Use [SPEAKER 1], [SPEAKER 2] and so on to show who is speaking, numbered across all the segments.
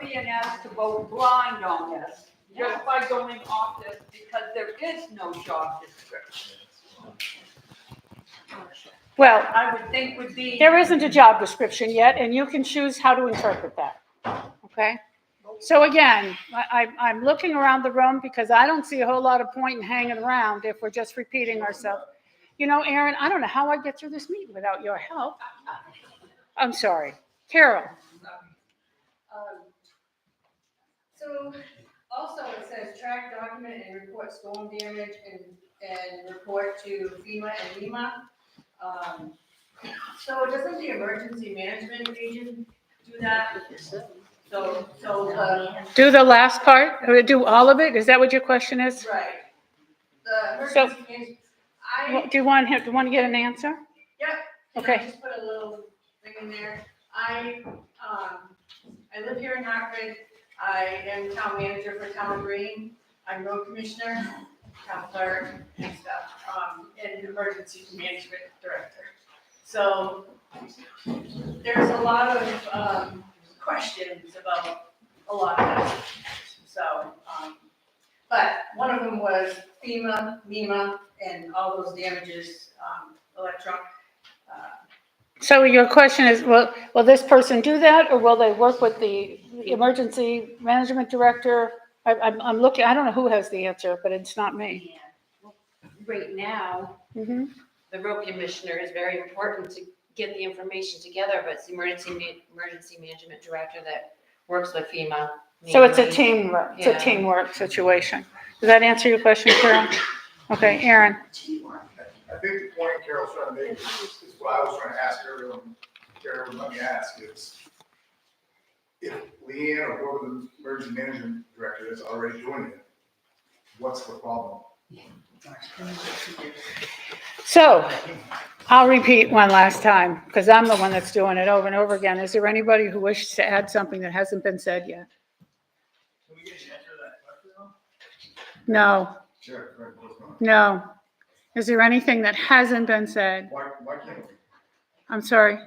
[SPEAKER 1] being asked to vote blind on this, just by going off this, because there is no job description.
[SPEAKER 2] Well,
[SPEAKER 1] I would think would be.
[SPEAKER 2] there isn't a job description yet, and you can choose how to interpret that. Okay? So again, I, I- I'm looking around the room because I don't see a whole lot of point in hanging around if we're just repeating ourselves. You know, Aaron, I don't know how I'd get through this meeting without your help. I'm sorry. Carol,
[SPEAKER 3] Um, So also it says track, document and report storm damage and, and report to FEMA and NEMA. Um, So doesn't the emergency management region do that? So, so, uh,
[SPEAKER 2] do the last part, or do all of it? Is that what your question is?
[SPEAKER 3] right. The
[SPEAKER 2] So-
[SPEAKER 3] emergency management, I,
[SPEAKER 2] Well, Do you want him, do you want to get an answer?
[SPEAKER 3] And
[SPEAKER 2] Okay.
[SPEAKER 3] I just put a little thing in there. I, um, I live here in Hartford. I am town manager for Town Green. I'm road commissioner, town clerk and stuff, um, and emergency management director. So there's a lot of, um, questions about a lot of that. So, um, but one of them was FEMA, NEMA, and all those damages, um, electronic, uh,
[SPEAKER 2] So your question is, will, will this person do that, or will they work with the emergency management director? I, I'm, I'm looking, I don't know who has the answer, but it's not me.
[SPEAKER 4] Right now,
[SPEAKER 2] Mhm.
[SPEAKER 4] the road commissioner is very important to get the information together, but it's the emergency, ma- emergency management director that works with FEMA.
[SPEAKER 2] So it's a
[SPEAKER 4] mainly.
[SPEAKER 2] teamwork, it's
[SPEAKER 4] Yeah.
[SPEAKER 2] a teamwork situation. Does that answer your question, Karen? Okay, Aaron,
[SPEAKER 5] I think the point Carol's trying to make is, is what I was trying to ask earlier, and Carol, let me ask is, if Leanne or whoever the emergency management director is already doing it, what's the problem?
[SPEAKER 2] so I'll repeat one last time, because I'm the one that's doing it over and over again. Is there anybody who wishes to add something that hasn't been said yet?
[SPEAKER 5] Can we get an answer to that question?
[SPEAKER 2] No,
[SPEAKER 5] Sure, right, what's going on?
[SPEAKER 2] no. Is there anything that hasn't been said?
[SPEAKER 5] Why, why can't we?
[SPEAKER 2] I'm sorry,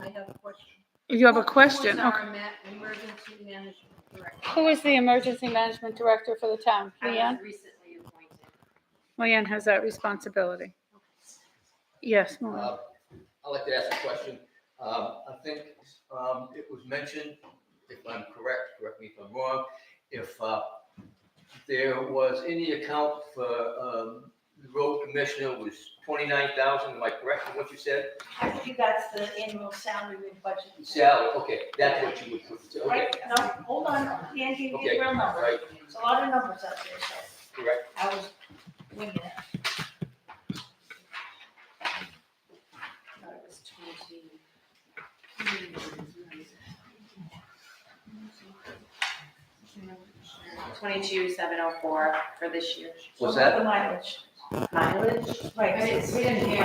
[SPEAKER 3] I have a question.
[SPEAKER 2] you have a question?
[SPEAKER 3] Who's our
[SPEAKER 2] Okay.
[SPEAKER 3] ma- emergency management director?
[SPEAKER 2] Who is the emergency management director for the town?
[SPEAKER 4] I was
[SPEAKER 2] Leanne?
[SPEAKER 4] Recently appointed.
[SPEAKER 2] Leanne has that responsibility. Yes, Maureen.
[SPEAKER 6] Uh, I'd like to ask a question. Um, I think um, it was mentioned, if I'm correct, correct me if I'm wrong, if uh, there was any account for um, the road commissioner was 29,000, am I correct in what you said?
[SPEAKER 7] I believe that's the annual salary and budget.
[SPEAKER 6] Salary, okay, that's what you would put, to- okay,
[SPEAKER 7] Right, no, hold on, Dan gave you the real number,
[SPEAKER 6] right,
[SPEAKER 7] it's a lot of numbers up there, so
[SPEAKER 6] correct.
[SPEAKER 7] I was winging it.
[SPEAKER 4] I thought it was 20. Twenty-two, seven oh four for this year.
[SPEAKER 6] Was that,
[SPEAKER 7] The mileage,
[SPEAKER 4] Mileage?
[SPEAKER 7] right.
[SPEAKER 4] I didn't- we didn't hear.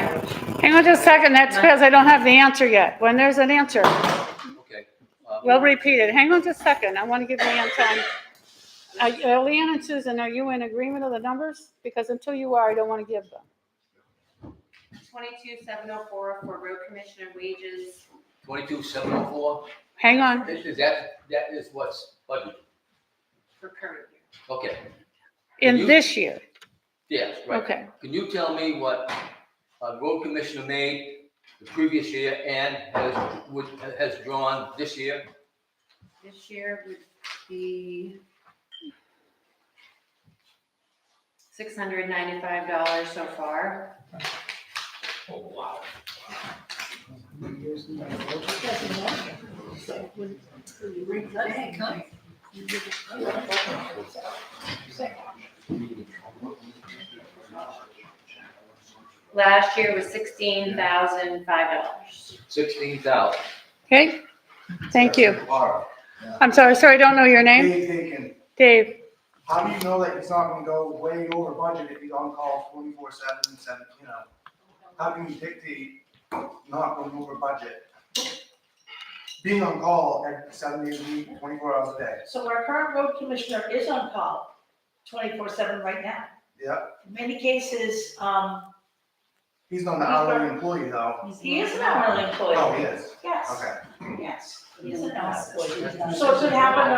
[SPEAKER 2] Hang on just a second, that's because I don't have the answer yet. When there's an answer,
[SPEAKER 6] okay. um,
[SPEAKER 2] we'll repeat it. Hang on just a second, I want to give Leanne time. Are- are Leanne and Susan, are you in agreement of the numbers? Because until you are, I don't want to give them.
[SPEAKER 4] Twenty-two, seven oh four for road commissioner wages.
[SPEAKER 6] 22,704,
[SPEAKER 2] Hang on,
[SPEAKER 6] Is- is that, that is what's budgeted,
[SPEAKER 4] for current year.
[SPEAKER 6] okay,
[SPEAKER 2] in this year,
[SPEAKER 6] yes, right.
[SPEAKER 2] okay.
[SPEAKER 6] Can you tell me what a road commissioner made the previous year and has, would, has drawn this year?
[SPEAKER 4] This year would be six hundred ninety-five dollars so far. Last year was sixteen thousand five dollars.
[SPEAKER 6] Sixteen thousand.
[SPEAKER 2] Okay, thank you.
[SPEAKER 5] Laura,
[SPEAKER 2] I'm sorry, sorry, I don't know your name.
[SPEAKER 8] Dave thinking,
[SPEAKER 2] Dave,
[SPEAKER 8] how do you know that it's not gonna go way over budget if he's on call twenty-four seven, seven, you know? How can you dictate not going over budget? Being on call at seven days a week, twenty-four hours a day,
[SPEAKER 7] So our current road commissioner is on call twenty-four seven right now.
[SPEAKER 8] yep.
[SPEAKER 7] In many cases, um,
[SPEAKER 8] He's not an hourly employee though.
[SPEAKER 7] he is an hourly employee.
[SPEAKER 8] Oh, he is,
[SPEAKER 7] Yes,
[SPEAKER 8] okay.
[SPEAKER 7] yes, he is an hourly employee. So it could happen